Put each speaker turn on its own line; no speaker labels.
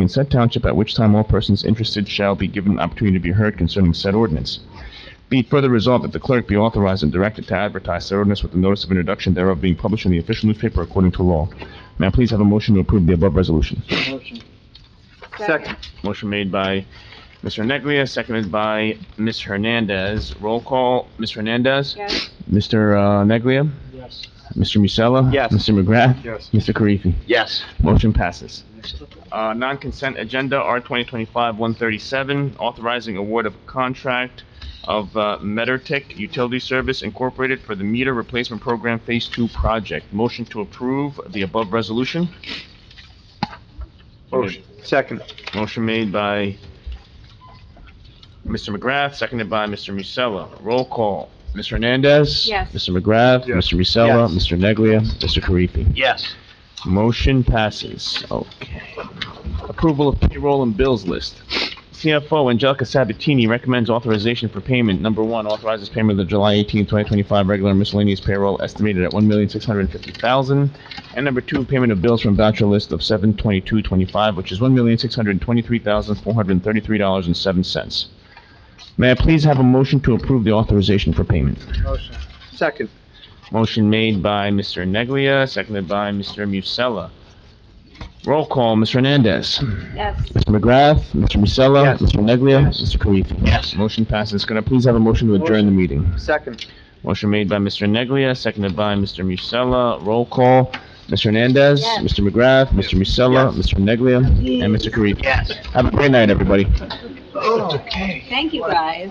in said township, at which time all persons interested shall be given an opportunity to be heard concerning said ordinance. Be it further resolved that the clerk be authorized and directed to advertise said ordinance with the notice of introduction thereof being published in the official newspaper according to law. May I please have a motion to approve the above resolution?
Motion.
Second.
Motion made by Mr. Neglia, seconded by Ms. Hernandez. Roll call, Ms. Hernandez?
Yes.
Mr. uh, Neglia?
Yes.
Mr. Musella?
Yes.
Mr. McGrath?
Yes.
Mr. Karifi?
Yes.
Motion passes. Uh, non-consent agenda, R 2025-137, authorizing award of contract of uh, Metertic Utility Service Incorporated for the meter replacement program Phase 2 project. Motion to approve the above resolution.
Motion. Second.
Motion made by Mr. McGrath, seconded by Mr. Musella. Roll call. Ms. Hernandez?
Yes.
Mr. McGrath?
Yes.
Mr. Musella?
Yes.
Mr. Neglia? Mr. Karifi?
Yes.
Motion passes. Okay. Approval of payroll and bills list. CFO Angelica Sabatini recommends authorization for payment. Number one, authorizes payment of the July 18, 2025 regular miscellaneous payroll estimated at $1,650,000. And number two, payment of bills from voucher list of 72225, which is $1,623,433.07. May I please have a motion to approve the authorization for payment?
Motion.
Second.
Motion made by Mr. Neglia, seconded by Mr. Musella. Roll call, Ms. Hernandez.
Yes.
Mr. McGrath, Mr. Musella.
Yes.
Mr. Neglia. Mr. Karifi.
Yes.
Motion passes. Can I please have a motion to adjourn the meeting?
Second.
Motion made by Mr. Neglia, seconded by Mr. Musella. Roll call, Ms. Hernandez.
Yes.
Mr. McGrath, Mr. Musella, Mr. Neglia, and Mr. Karifi.
Yes.
Have a great night, everybody.
Okay.
Thank you, guys.